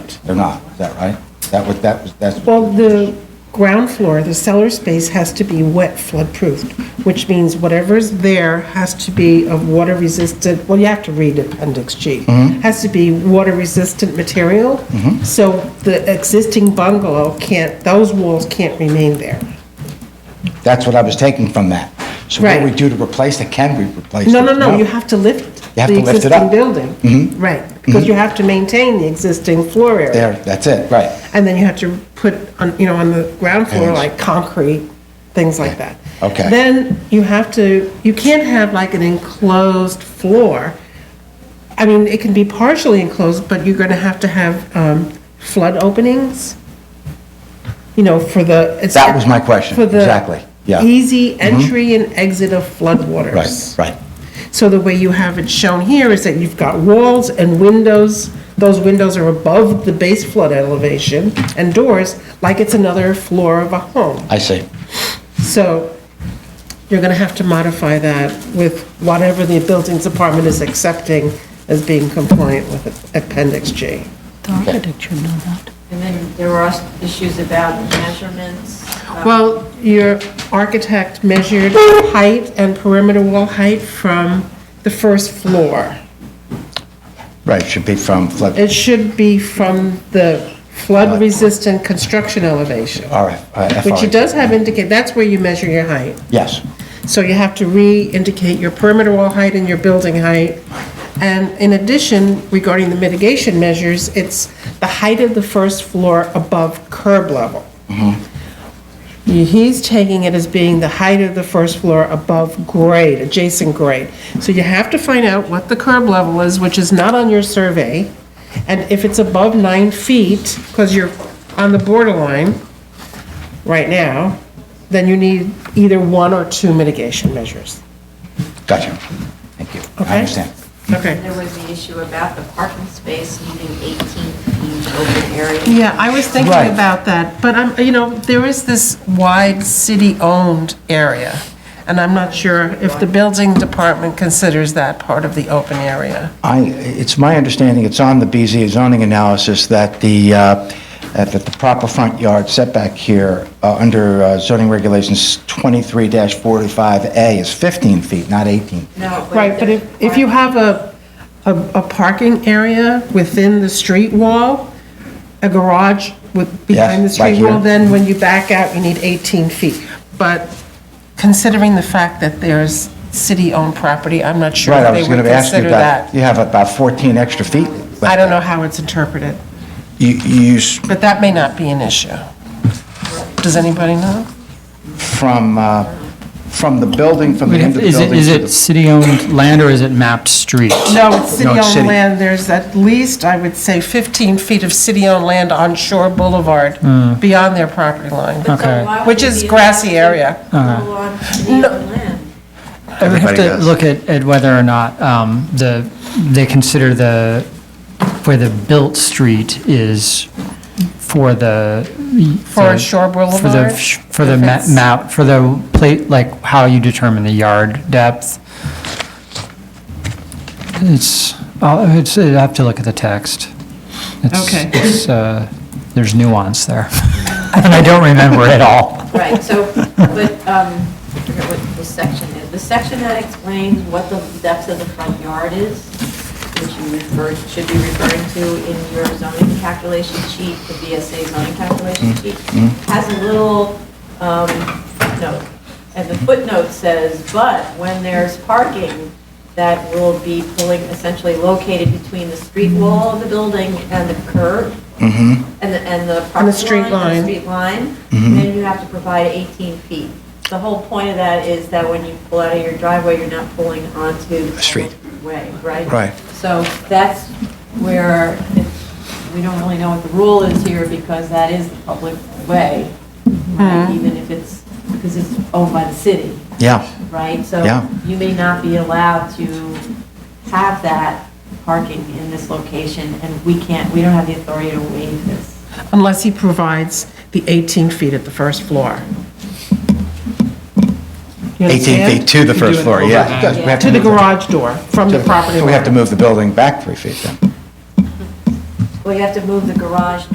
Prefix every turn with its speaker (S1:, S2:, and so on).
S1: They're not, is that right? Is That what, that was, that's,
S2: Well, the ground floor, the cellar space has to be wet flood-proofed, which means whatever's there has to be of water-resistant, well, you have to read Appendix G.
S1: Mm-hmm.
S2: Has to be water-resistant material. So the existing bungalow can't, those walls can't remain there.
S1: that's what I was taking from that. So what do we
S2: Right.
S1: do to replace it? Can we replace it?
S2: No, no, no, you have to lift
S1: You have
S2: the
S1: to lift it
S2: existing
S1: up. Mm-hmm.
S2: building. Right, because you have to maintain the existing floor area.
S1: There, that's it, right.
S2: And then you have to put, on you know, on the ground floor,
S1: Yes.
S2: like concrete, things like that.
S1: Okay.
S2: Then you have to, you can't have like an enclosed floor. I mean, it can be partially enclosed, but you're gonna have to have um, flood openings, you know, for the. it's-
S1: That was my question,
S2: for the
S1: exactly, yeah. Mm-hmm.
S2: Easy entry and exit of floodwaters.
S1: Right, right.
S2: So the way you have it shown here is that you've got walls and windows. Those windows are above the base flood elevation and doors, like it's another floor of a home.
S1: I see.
S2: So you're going to have to modify that with whatever the buildings department is accepting as being compliant with Appendix G.
S3: The architect should know that.
S4: And then there were also issues about measurements. uh,
S2: Well, your architect measured height and perimeter wall height from the first floor.
S1: Right, should be from flood,
S2: It should be from the flood-resistant construction elevation,
S1: all right. all right,
S2: which
S1: FRA.
S2: it does have indicate, that's where you measure your height.
S1: Yes,
S2: So you have to re-indicate your perimeter wall height and your building height. And in addition, regarding the mitigation measures, it's the height of the first floor above curb level. He's taking it as being the height of the first floor above grade, adjacent grade. So you have to find out what the curb level is, which is not on your survey. And if it's above nine feet, because you're on the borderline right now, then you need either one or two mitigation measures.
S1: gotcha. Thank you. I
S2: Okay.
S1: understand.
S2: Okay.
S4: There was the issue about the parking space needing 18 feet open area.
S2: Yeah, I was thinking
S1: Right.
S2: about that, but I'm, you know, there is this wide city-owned area, and I'm not sure if the building department considers that part of the open area.
S1: I, it's my understanding, it's on the BZ zoning analysis, that the, uh, that that the proper front yard setback here, uh, under uh, zoning regulations 23-45A is 15 feet, not 18.
S4: No,
S2: Right, but if, if you have a, a, a parking area within the street wall, a garage with, behind the
S1: Yes, like
S2: street wall,
S1: here.
S2: then when you back out, you need 18 feet. But considering the fact that there's city-owned property, I'm not sure
S1: Right, I
S2: if
S1: was
S2: they would
S1: going to ask you
S2: consider
S1: about,
S2: that.
S1: you have about 14 extra feet.
S2: I don't know how it's interpreted,
S1: You, you, s-
S2: but that may not be an issue. Does anybody know?
S1: from, uh, from the building, from the end of the
S5: Is it,
S1: building.
S5: is
S1: to
S5: it
S1: the-
S5: city-owned land or is it mapped street?
S2: No, it's
S1: city.
S2: city-owned land, there's at least, I would say, 15 feet of city-owned land on Shore Boulevard
S1: Hmm.
S2: beyond their property line.
S5: Okay.
S2: Which is grassy area.
S4: On
S2: Uh-huh.
S4: city-owned land.
S5: I would have
S1: Everybody
S5: to
S1: does.
S5: look at, at whether or not um, the, they consider the, where the built street is for the.
S2: For
S5: the-
S2: Shore
S5: For the,
S2: Boulevard?
S5: sh- for the
S2: If
S5: ma-
S2: it's-
S5: map, for the plate, like how you determine the yard depth. It's, I'll- it's, I have to look at the text. It's-
S2: Okay.
S5: It's, uh, there's nuance there. And I don't remember it all.
S4: Right, so, but, um, I forget what the section is. The section that explains what the depth of the front yard is, which you refer, should be referring to in your zoning calculation sheet, the BSA zoning calculation sheet, has a little um, footnote. And the footnote says, but when there's parking that will be pulling, essentially located between the street wall of the building and the curb,
S1: mm-hmm,
S4: and the, and the
S2: And the
S4: property
S2: street
S4: line,
S2: line.
S4: and the street line, then you have to provide 18 feet. The whole point of that is that when you pull out of your driveway, you're not pulling onto the
S1: Street.
S4: public Way, right?
S1: Right.
S4: So that's where, it's- we don't really know what the rule is here, because that is the public way, right? even if it's, because it's owned by the city
S1: Yeah.
S4: right? So
S1: Yeah.
S4: you may not be allowed to have that parking in this location, and we can't, we don't have the authority to waive this.
S2: Unless he provides the 18 feet at the first floor.
S1: 18
S2: You understand?
S1: feet to the first floor, yeah.
S5: overhang.
S1: Because we have
S2: To the
S1: move
S2: garage door, from the property
S1: So we have to
S2: line.
S1: move the building back three feet then.
S4: Well, you have to move the garage